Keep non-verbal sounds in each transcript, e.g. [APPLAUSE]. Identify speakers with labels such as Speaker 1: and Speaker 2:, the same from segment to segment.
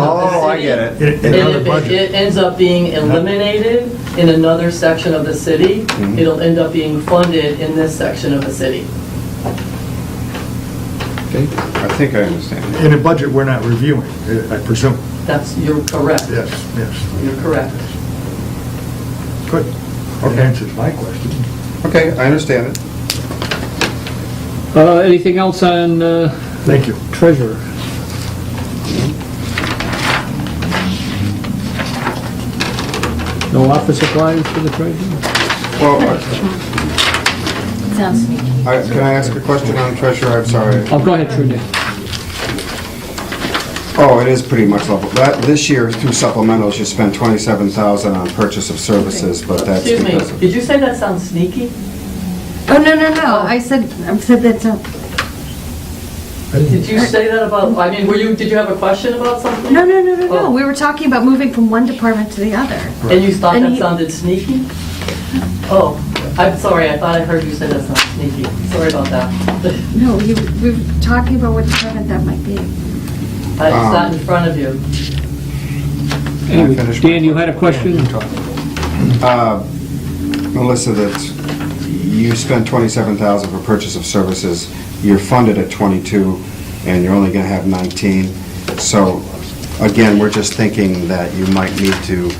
Speaker 1: Oh, I get it.
Speaker 2: in in
Speaker 3: And
Speaker 2: another
Speaker 3: if it-
Speaker 2: budget.
Speaker 3: it ends up being eliminated in another section of the city,
Speaker 1: Mm-hmm.
Speaker 3: it'll end up being funded in this section of the city.
Speaker 2: okay?
Speaker 1: I think I understand.
Speaker 2: In a budget we're not reviewing, I I presume.
Speaker 3: That's, you're correct.
Speaker 2: Yes, yes.
Speaker 3: You're correct.
Speaker 2: Good. That answers my question.
Speaker 1: Okay, I understand it.
Speaker 4: Uh, Anything else on uh,
Speaker 2: Thank you.
Speaker 4: treasurer? No office supplies for the treasurer?
Speaker 1: Well, I-
Speaker 5: Sounds sneaky.
Speaker 1: I- can I ask a question on treasurer? I'm sorry.
Speaker 4: Oh, go ahead, Trudy.
Speaker 1: Oh, it is pretty much level. That, this year, through supplementals, you spent 27,000 on purchase of services, but that's
Speaker 3: Excuse me,
Speaker 1: because of...
Speaker 3: did you say that sounds sneaky?
Speaker 5: Oh, no, no, no, I said, I said that's not,
Speaker 3: Did you say that about, I mean, were you, did you have a question about something?
Speaker 5: no, no, no, no, no,
Speaker 3: Oh.
Speaker 5: we were talking about moving from one department to the other.
Speaker 3: And you thought
Speaker 5: And
Speaker 3: that
Speaker 5: he-
Speaker 3: sounded sneaky? Oh, I'm sorry, I thought I heard you say that's not sneaky. Sorry about that. [LAUGHS]
Speaker 5: No, you, we were talking about what department that might be.
Speaker 3: I
Speaker 1: Um,
Speaker 3: was not in front of you.
Speaker 1: Can I finish my
Speaker 4: Dan, you had a question?
Speaker 1: Uh, Melissa, that you spent 27,000 for purchase of services, you're funded at 22, and you're only going to have 19. So again, we're just thinking that you might need to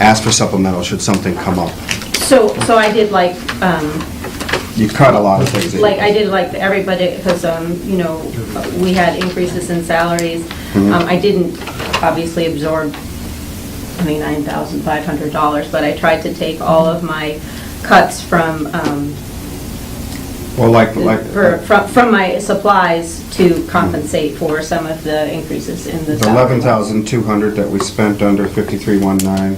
Speaker 1: ask for supplemental should something come up.
Speaker 6: So, so I did like, um,
Speaker 1: You cut a lot of things. that you-
Speaker 6: like, I did like everybody, because, um, you know, we had increases in salaries. Um, I didn't obviously absorb $29,500, but I tried to take all of my cuts from, um,
Speaker 1: Well, like, like,
Speaker 6: for- from, from my supplies to compensate for some of the increases in the
Speaker 1: the
Speaker 6: salary.
Speaker 1: 11,200 that we spent under 5319,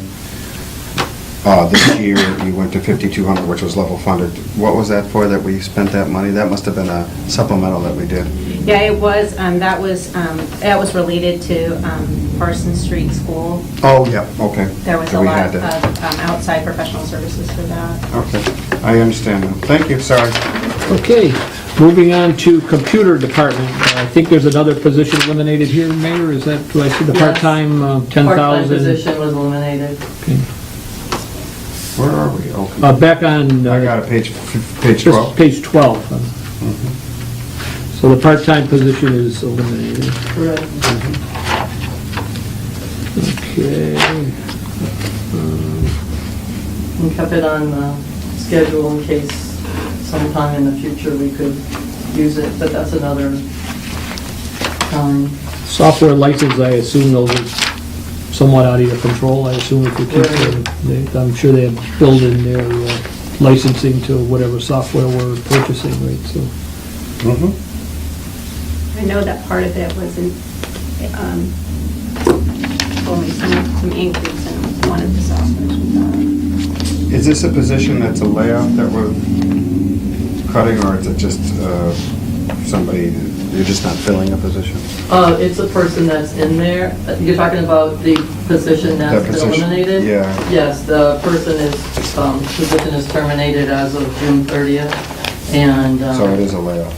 Speaker 1: uh, this year, you went to 5,200, which was level funded. What was that for, that we spent that money? That must have been a supplemental that we did.
Speaker 6: Yeah, it was, um, that was, um, that was related to um, Parsons Street School.
Speaker 1: Oh, yeah, okay.
Speaker 6: There was
Speaker 1: So
Speaker 6: a
Speaker 1: we
Speaker 6: lot
Speaker 1: had
Speaker 6: of
Speaker 1: that.
Speaker 6: um, outside professional services for that.
Speaker 1: Okay, I understand now. Thank you, sorry.
Speaker 4: Okay, moving on to computer department. Uh, I think there's another position eliminated here, Mayor, is that, do I see the
Speaker 3: Yes.
Speaker 4: part-time uh, 10,000?
Speaker 3: Part-time position was eliminated.
Speaker 1: Where are we? Okay.
Speaker 4: Uh, Back on,
Speaker 1: I
Speaker 4: uh,
Speaker 1: got a page, f- page
Speaker 4: just
Speaker 1: 12.
Speaker 4: page 12. uh,
Speaker 1: Mm-hmm.
Speaker 4: So the part-time position is eliminated.
Speaker 3: Correct.
Speaker 4: Okay, Uh,
Speaker 3: And kept it on the schedule in case sometime in the future we could use it, but that's another time.
Speaker 4: software license, I assume those are somewhat out of your control, I assume if you keep them. they- I'm sure they have built in their uh, licensing to whatever software we're purchasing, right, so.
Speaker 1: Mhm.
Speaker 6: I know that part of it was in, um, told me some, some increase in one of the softwares we got.
Speaker 1: Is this a position that's a layoff that we're cutting, or is it just uh, somebody, you're just not filling a position?
Speaker 3: Uh, it's a person that's in there, you're talking about the position
Speaker 1: That
Speaker 3: that's been
Speaker 1: position,
Speaker 3: eliminated?
Speaker 1: yeah.
Speaker 3: Yes, the person is, um, position is terminated as of June thirtieth, and,
Speaker 2: Uh,
Speaker 3: um.
Speaker 1: So it is a layoff.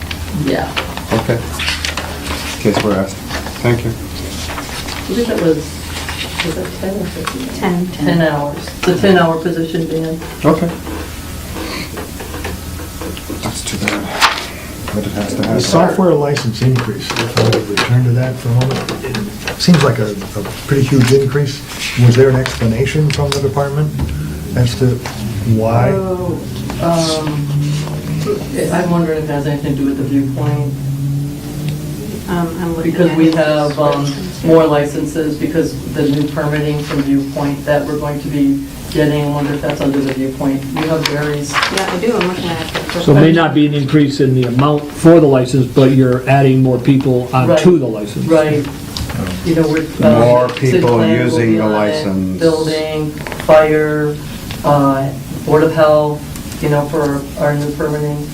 Speaker 3: Yeah,
Speaker 1: Okay. In case we're asked. Thank you.
Speaker 3: I think it was, was it ten or fifteen?
Speaker 6: Ten.
Speaker 3: Ten hours, it's a ten-hour position, Dan.
Speaker 1: Okay. That's too bad. But it has to happen.
Speaker 2: The software license increase, if I could return to that for a moment, it seems like a, a pretty huge increase. Was there an explanation from the department as to why?
Speaker 3: Oh, um, I'm wondering if it has anything to do with the viewpoint,
Speaker 6: Um, I'm looking
Speaker 3: because
Speaker 6: at
Speaker 3: we
Speaker 6: it.
Speaker 3: have, um, more licenses, because the new permitting from viewpoint that we're going to be getting, I wonder if that's under the viewpoint. You have various,
Speaker 6: Yeah, I do, I'm looking at it.
Speaker 4: So it may not be an increase in the amount for the license, but you're adding more people onto
Speaker 3: Right.
Speaker 4: the license.
Speaker 3: right, you know, with. um,
Speaker 1: More
Speaker 3: city
Speaker 1: people
Speaker 3: plan will
Speaker 1: using
Speaker 3: be
Speaker 1: the
Speaker 3: on it,
Speaker 1: license.
Speaker 3: Building, fire, uh, board of health, you know, for our new permitting.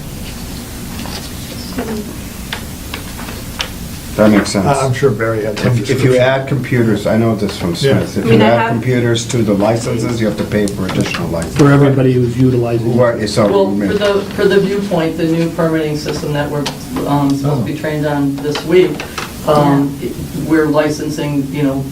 Speaker 1: That makes sense.
Speaker 2: I- Uh, I'm sure Barry had some
Speaker 1: If if you
Speaker 2: description.
Speaker 1: add computers, I know this from Smith,
Speaker 2: Yeah.
Speaker 1: if
Speaker 6: I mean,
Speaker 1: you
Speaker 6: I
Speaker 1: add
Speaker 6: have-
Speaker 1: computers to the licenses, you have to pay for additional license.
Speaker 4: For everybody who's utilizing. it.
Speaker 1: Right, so,
Speaker 3: Well, for the, for the viewpoint, the new permitting system that we're um, supposed to be trained on this week, um, we're licensing, you know,